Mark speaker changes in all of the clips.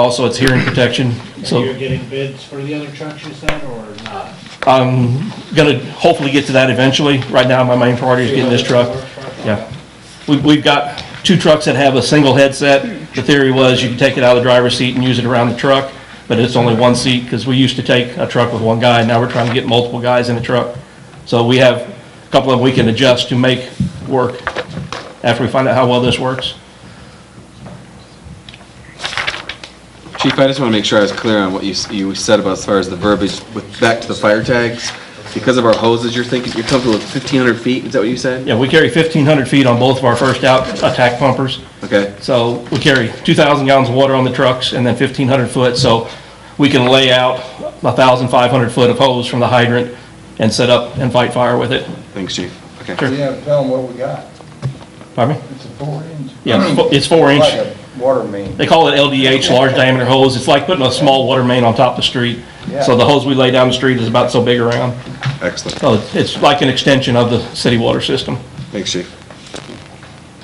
Speaker 1: Also, it's hearing protection,
Speaker 2: And you're
Speaker 1: so
Speaker 2: getting bids for the other trucks you said, or not?
Speaker 1: I'm gonna hopefully get to that eventually. Right now, my main priority is getting this truck. Yeah. We, we've got two trucks that have a single headset. The theory was you could take it out of the driver's seat and use it around the truck, but it's only one seat, because we used to take a truck with one guy, now we're trying to get multiple guys in a truck. So we have a couple of them we can adjust to make work after we find out how well this works.
Speaker 3: Chief, I just want to make sure I was clear on what you, s- you said about as far as the verbiage with, back to the fire tags. Because of our hoses, you're thinking, you're comfortable with fifteen hundred feet, is that what you said?
Speaker 1: Yeah, we carry 1,500 feet on both of our first out attack pumpers.
Speaker 3: Okay,
Speaker 1: So we carry 2,000 gallons of water on the trucks and then 1,500 foot, so we can lay out 1,500 foot of hose from the hydrant and set up and fight fire with it.
Speaker 3: thanks, chief, okay.
Speaker 1: Sure.
Speaker 4: We have to tell them what we got.
Speaker 1: Pardon me?
Speaker 4: It's a four inch.
Speaker 1: Yeah, it's fo- it's four
Speaker 4: Like
Speaker 1: inch.
Speaker 4: a water main.
Speaker 1: They call it LDH, large diameter hose. It's like putting a small water main on top of the street. So the hose we lay down the street is about so big around.
Speaker 3: Excellent,
Speaker 1: So it's like an extension of the city water system.
Speaker 3: thanks, chief.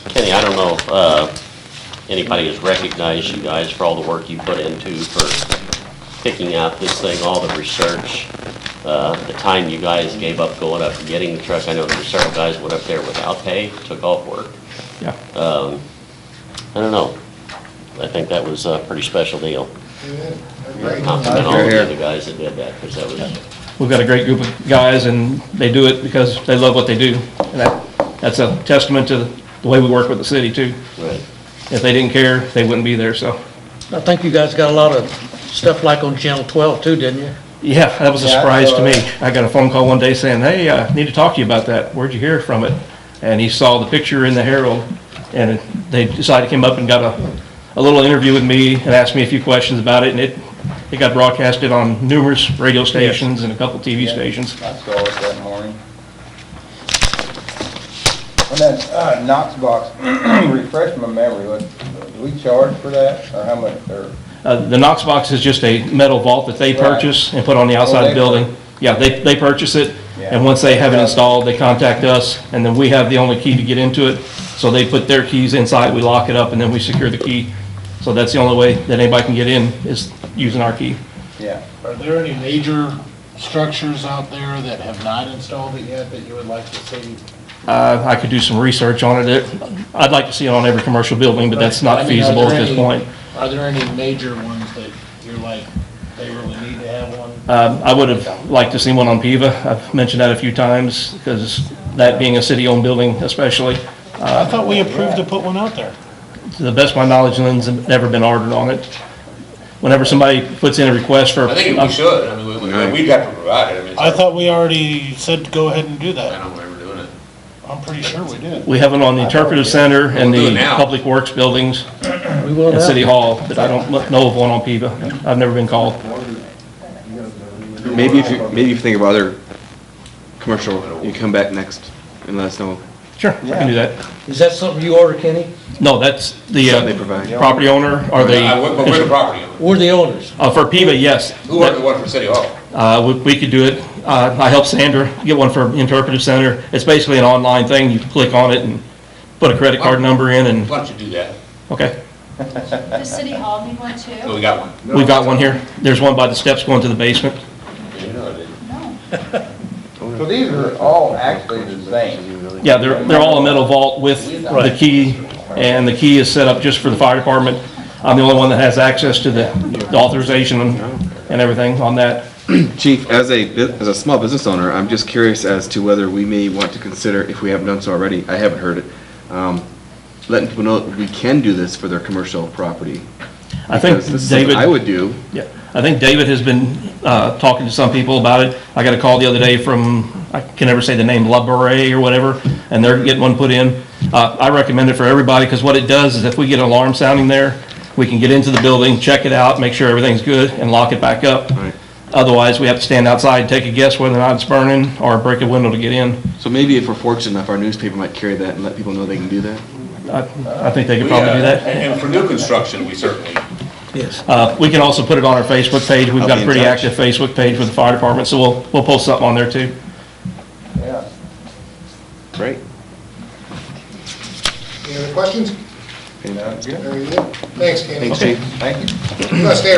Speaker 5: Kenny, I don't know if uh, anybody has recognized you guys for all the work you put into for picking out this thing, all the research, uh, the time you guys gave up going up and getting the truck. I know there were several guys went up there without pay, took off work.
Speaker 1: Yeah.
Speaker 5: I don't know. I think that was a pretty special deal. Compliment all
Speaker 3: Here,
Speaker 5: the
Speaker 3: here.
Speaker 5: other guys that did that, because that was,
Speaker 1: We've got a great group of guys, and they do it because they love what they do. And that, that's a testament to the way we work with the city, too.
Speaker 5: right.
Speaker 1: If they didn't care, they wouldn't be there, so.
Speaker 6: I think you guys got a lot of stuff like on Channel 12 too, didn't you?
Speaker 1: Yeah, that was a
Speaker 4: Yeah, I
Speaker 1: surprise to
Speaker 4: saw
Speaker 1: me.
Speaker 4: that.
Speaker 1: I got a phone call one day saying, hey, I need to talk to you about that. Where'd you hear from it? And he saw the picture in the Herald, and they decided, came up and got a, a little interview with me and asked me a few questions about it, and it, it got broadcasted on numerous radio stations and a couple TV stations.
Speaker 4: I saw it that morning. And that uh, Knox box, refresh my memory, what, do we charge for that, or how much, or?
Speaker 1: Uh, The Knox box is just a metal vault that they
Speaker 4: Right.
Speaker 1: purchase and put on the outside
Speaker 4: Oh,
Speaker 1: of the
Speaker 4: they
Speaker 1: building.
Speaker 4: pur-
Speaker 1: Yeah, they, they purchase it,
Speaker 4: Yeah.
Speaker 1: and once they have it installed, they contact us, and then we have the only key to get into it. So they put their keys inside, we lock it up, and then we secure the key. So that's the only way that anybody can get in, is using our key.
Speaker 4: Yeah,
Speaker 2: Are there any major structures out there that have not installed it yet that you would like to see?
Speaker 1: Uh, I could do some research on it. it. I'd like to see it on every commercial building, but that's
Speaker 2: I
Speaker 1: not
Speaker 2: mean, are
Speaker 1: feasible
Speaker 2: there
Speaker 1: at this
Speaker 2: any-
Speaker 1: point.
Speaker 2: Are there any major ones that you're like, they really need to have one?
Speaker 1: Um, I would have liked to see one on Piva. I've mentioned that a few times, because that being a city-owned building especially,
Speaker 2: I thought we approved to put one out there.
Speaker 1: To the best of my knowledge, Lynn's never been ordered on it. Whenever somebody puts in a request for,
Speaker 7: I think we
Speaker 1: I
Speaker 7: should, I mean, we, we- we'd have to provide it, I mean. it's
Speaker 2: I thought we already said go ahead and do
Speaker 7: our- I
Speaker 2: that.
Speaker 7: don't know why we're doing it.
Speaker 2: I'm pretty sure we did.
Speaker 1: we have it on the interpretive center and
Speaker 7: We'll do
Speaker 1: the
Speaker 7: it now.
Speaker 1: public works buildings
Speaker 6: We will
Speaker 1: and city
Speaker 6: now.
Speaker 1: hall, but I don't know of one on PIVA. I've never been called.
Speaker 3: Maybe if you, maybe if you think of other commercial, you come back next and let us know.
Speaker 1: Sure, I can do that.
Speaker 6: Is that something you order, Kenny?
Speaker 1: No, that's the
Speaker 3: Something they
Speaker 1: uh,
Speaker 3: provide.
Speaker 1: property owner or the,
Speaker 7: I- But we're the property owner.
Speaker 6: We're the owners.
Speaker 1: uh, for PIVA, yes.
Speaker 7: Who ordered the one for City Hall?
Speaker 1: Uh, we- We could do it. Uh, I helped Sandra get one for interpretive center. It's basically an online thing. You click on it and put a credit card number in and,
Speaker 7: Why don't you do that?
Speaker 1: okay.
Speaker 8: Does City Hall need one too?
Speaker 7: Oh, we got one.
Speaker 1: We've got one here. There's one by the steps going to the basement.
Speaker 7: You know, they-
Speaker 8: No.
Speaker 4: so these are all actually the same.
Speaker 1: Yeah, they're, they're all a metal vault with the key, and the key is set up just for the fire department. I'm the only one that has access to the the authorization and and everything on that.
Speaker 3: Chief, as a, bu- as a small business owner, I'm just curious as to whether we may want to consider, if we haven't done so already, I haven't heard it, um, letting people know that we can do this for their commercial property.
Speaker 1: I think
Speaker 3: Because this is something
Speaker 1: David,
Speaker 3: I would do.
Speaker 1: yeah, I think David has been, uh, talking to some people about it. I got a call the other day from, I can never say the name, La Beret or whatever, and they're getting one put in. Uh, I recommend it for everybody, because what it does is if we get an alarm sounding there, we can get into the building, check it out, make sure everything's good, and lock it back up. Otherwise, we have to stand outside, and take a guess whether or not it's burning, or break a window to get in.
Speaker 3: So maybe if we're fortunate enough, our newspaper might carry that and let people know they can do that.
Speaker 1: I I think they could
Speaker 7: we,
Speaker 1: probably do
Speaker 7: uh,
Speaker 1: that.
Speaker 7: And and for new construction, we certainly,
Speaker 6: Yes.
Speaker 1: Uh, We can also put it on our Facebook page. We've
Speaker 3: I'll
Speaker 1: got
Speaker 3: be
Speaker 1: a
Speaker 3: in
Speaker 1: pretty
Speaker 3: touch.
Speaker 1: active Facebook page with the fire department, so we'll, we'll post something on there too.
Speaker 4: Yeah.
Speaker 3: Right.
Speaker 9: Any other questions?
Speaker 3: anytime.
Speaker 4: Sounds good.
Speaker 2: Thanks, Kenny.
Speaker 3: Thanks, Chief.
Speaker 4: Thank you.
Speaker 2: You must have